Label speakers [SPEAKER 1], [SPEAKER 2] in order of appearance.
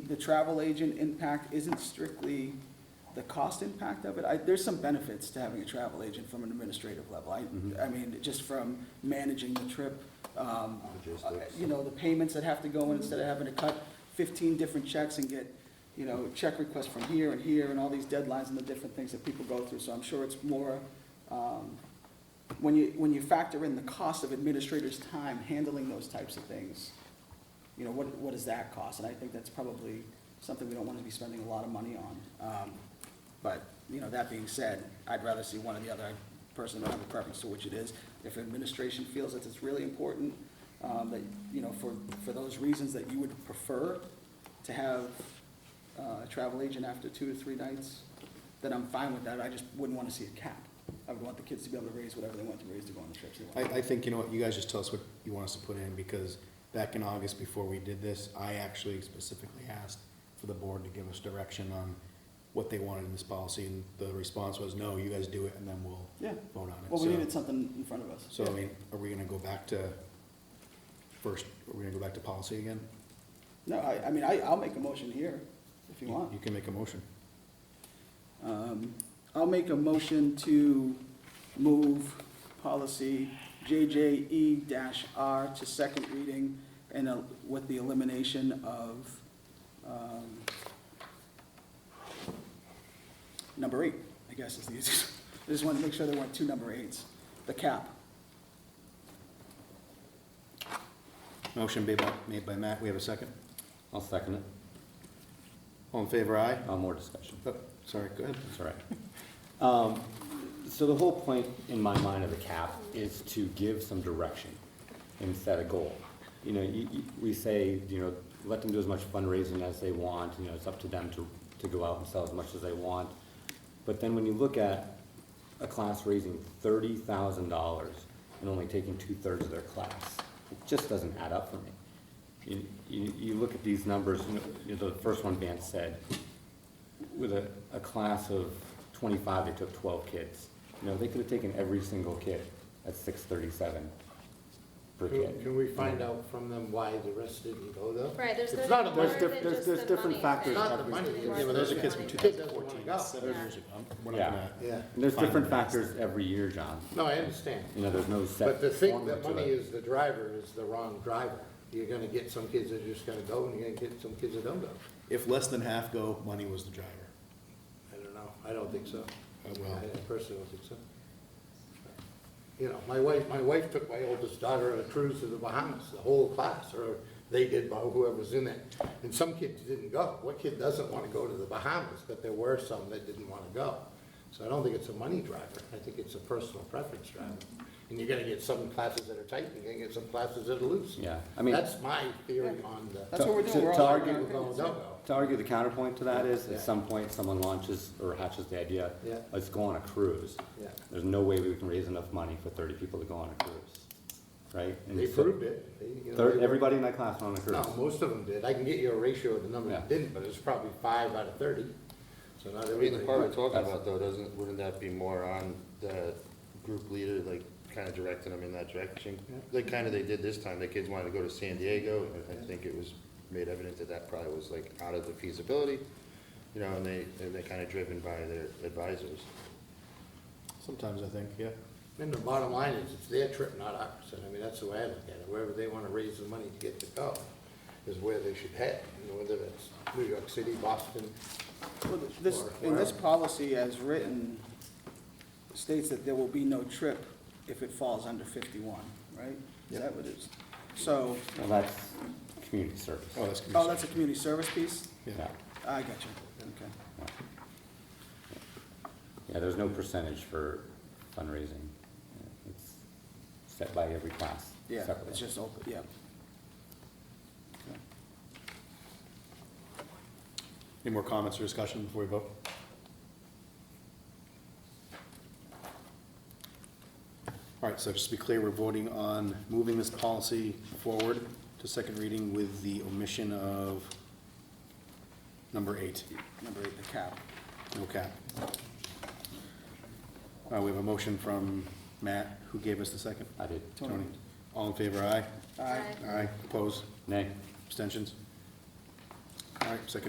[SPEAKER 1] the travel agent impact isn't strictly the cost impact of it. I, there's some benefits to having a travel agent from an administrative level. I, I mean, just from managing the trip, um,
[SPEAKER 2] Logistics.
[SPEAKER 1] you know, the payments that have to go in instead of having to cut fifteen different checks and get, you know, check requests from here and here and all these deadlines and the different things that people go through. So I'm sure it's more, um, when you, when you factor in the cost of administrators' time handling those types of things, you know, what, what does that cost? And I think that's probably something we don't want to be spending a lot of money on. Um, But, you know, that being said, I'd rather see one or the other. I Personally, don't have a preference to which it is. If administration feels that it's really important, um, that, you know, for, for those reasons that you would prefer to have uh, a travel agent after two to three nights, then I'm fine with that. I just wouldn't want to see a cap. I would want the kids to be able to raise whatever they want to raise to go on the trips they
[SPEAKER 2] I,
[SPEAKER 1] want.
[SPEAKER 2] I think, you know what, you guys just tell us what you want us to put in, because back in August, before we did this, I actually specifically asked for the board to give us direction on what they wanted in this policy, and the response was, no, you guys do it, and then we'll
[SPEAKER 1] Yeah.
[SPEAKER 2] vote on it.
[SPEAKER 1] Well, we
[SPEAKER 2] So-
[SPEAKER 1] needed something in front of us.
[SPEAKER 2] So, I mean, are we gonna go back to, first, are we gonna go back to policy again?
[SPEAKER 1] No, I, I mean, I, I'll make a motion here if you want.
[SPEAKER 2] You can make a motion.
[SPEAKER 1] Um, I'll make a motion to move policy JJE R to second reading and uh, with the elimination of, um, number eight, I guess is the easiest. I just wanted to make sure there weren't two number eights, the cap.
[SPEAKER 2] Motion made by, made by Matt, we have a second.
[SPEAKER 3] I'll second it.
[SPEAKER 2] All in favor, aye?
[SPEAKER 3] Uh, more discussion.
[SPEAKER 2] Oh, Sorry, go ahead.
[SPEAKER 3] That's all right. Um, so the whole point in my mind of the cap is to give some direction and set a goal. You know, you, you, we say, you know, let them do as much fundraising as they want, you know, it's up to them to, to go out and sell as much as they want. But then when you look at a class raising thirty thousand dollars and only taking two-thirds of their class, it just doesn't add up for me. You, you, you look at these numbers, you know, you know, the first one Vance said, with a, a class of twenty-five, they took twelve kids. You know, they could have taken every single kid at six thirty-seven per
[SPEAKER 4] Can
[SPEAKER 3] kid.
[SPEAKER 4] can we find out from them why the rest didn't go though?
[SPEAKER 5] Right, there's.
[SPEAKER 4] It's
[SPEAKER 5] the-
[SPEAKER 4] not a
[SPEAKER 5] more
[SPEAKER 4] bunch.
[SPEAKER 5] than
[SPEAKER 3] There's-
[SPEAKER 5] just
[SPEAKER 3] there's
[SPEAKER 5] the
[SPEAKER 3] different
[SPEAKER 5] money.
[SPEAKER 3] factors.
[SPEAKER 4] Not the money.
[SPEAKER 5] There's
[SPEAKER 4] Yeah, but those are
[SPEAKER 5] more
[SPEAKER 4] kids
[SPEAKER 5] than
[SPEAKER 4] from
[SPEAKER 5] money.
[SPEAKER 4] 2014, that's seven
[SPEAKER 5] Yeah. years
[SPEAKER 2] We're not
[SPEAKER 3] Yeah.
[SPEAKER 2] gonna-
[SPEAKER 4] Yeah,
[SPEAKER 3] And there's different
[SPEAKER 2] Fine.
[SPEAKER 3] factors every year, John.
[SPEAKER 4] no, I understand.
[SPEAKER 3] You know, there's no set.
[SPEAKER 4] But the thing
[SPEAKER 3] formula
[SPEAKER 4] that
[SPEAKER 3] to
[SPEAKER 4] money
[SPEAKER 3] it.
[SPEAKER 4] is the driver is the wrong driver. You're gonna get some kids that are just gonna go and you're gonna get some kids that don't go.
[SPEAKER 2] If less than half go, money was the driver.
[SPEAKER 4] I don't know. I don't think so.
[SPEAKER 3] Uh,
[SPEAKER 2] I will.
[SPEAKER 4] I personally don't think so. You know, my wife, my wife took my oldest daughter on a cruise to the Bahamas, the whole class, or they did, or whoever was in it. And some kids didn't go. What kid doesn't want to go to the Bahamas? But there were some that didn't want to go. So I don't think it's a money driver. I think it's a personal preference driver. And you're gonna get some classes that are tight, and you're gonna get some classes that are loose.
[SPEAKER 3] Yeah, I mean-
[SPEAKER 4] That's my theory on the.
[SPEAKER 1] That's what we're
[SPEAKER 3] To-
[SPEAKER 1] doing. We're
[SPEAKER 3] to
[SPEAKER 1] all-
[SPEAKER 3] argue-
[SPEAKER 4] People go, don't go.
[SPEAKER 3] To argue the counterpoint to that is,
[SPEAKER 4] Yeah.
[SPEAKER 3] at some point, someone launches or hatches the idea,
[SPEAKER 4] Yeah.
[SPEAKER 3] let's go on a cruise.
[SPEAKER 4] Yeah.
[SPEAKER 3] There's no way we can raise enough money for thirty people to go on a cruise, right? And
[SPEAKER 4] They
[SPEAKER 3] so-
[SPEAKER 4] proved it. They, you know,
[SPEAKER 3] Third,
[SPEAKER 4] they were-
[SPEAKER 3] everybody in my class went on a
[SPEAKER 4] No,
[SPEAKER 3] cruise.
[SPEAKER 4] most of them did. I can get you a ratio of the number
[SPEAKER 3] Yeah.
[SPEAKER 4] that didn't, but it's probably five out of thirty. So not
[SPEAKER 6] I mean, the
[SPEAKER 4] everybody.
[SPEAKER 6] part we're talking about though, doesn't, wouldn't that be more on the group leader, like, kind of directing them in that direction? Like, kind of they did this time, the kids wanted to go to San Diego, and I think it was made evident that that probably was like out of the feasibility, you know, and they, and they're kind of driven by their advisors.
[SPEAKER 2] Sometimes I think, yeah.
[SPEAKER 4] And the bottom line is, it's their trip, not ours. And I mean, that's the way I look at it. Wherever they want to raise the money to get to go is where they should head, you know, whether it's New York City, Boston.
[SPEAKER 1] Well, This, in this policy as written states that there will be no trip if it falls under fifty-one, right? Is that what it is? So,
[SPEAKER 3] Well, that's community service.
[SPEAKER 2] Oh, that's.
[SPEAKER 1] oh, that's a community service piece?
[SPEAKER 2] Yeah.
[SPEAKER 1] I got you, okay.
[SPEAKER 3] Yeah, there's no percentage for fundraising. Yeah, It's set by every class
[SPEAKER 1] Yeah,
[SPEAKER 3] separately.
[SPEAKER 1] it's just open, yeah.
[SPEAKER 2] Any more comments or discussion before we vote? All right, so just to be clear, we're voting on moving this policy forward to second reading with the omission of number eight,
[SPEAKER 1] Number eight, the cap.
[SPEAKER 2] no cap. Uh, we have a motion from Matt, who gave us the second?
[SPEAKER 3] I did.
[SPEAKER 1] Tony.
[SPEAKER 2] All in favor, aye?
[SPEAKER 1] Aye.
[SPEAKER 2] Aye, opposed?
[SPEAKER 3] Nay.
[SPEAKER 2] Abstentions? All right, second.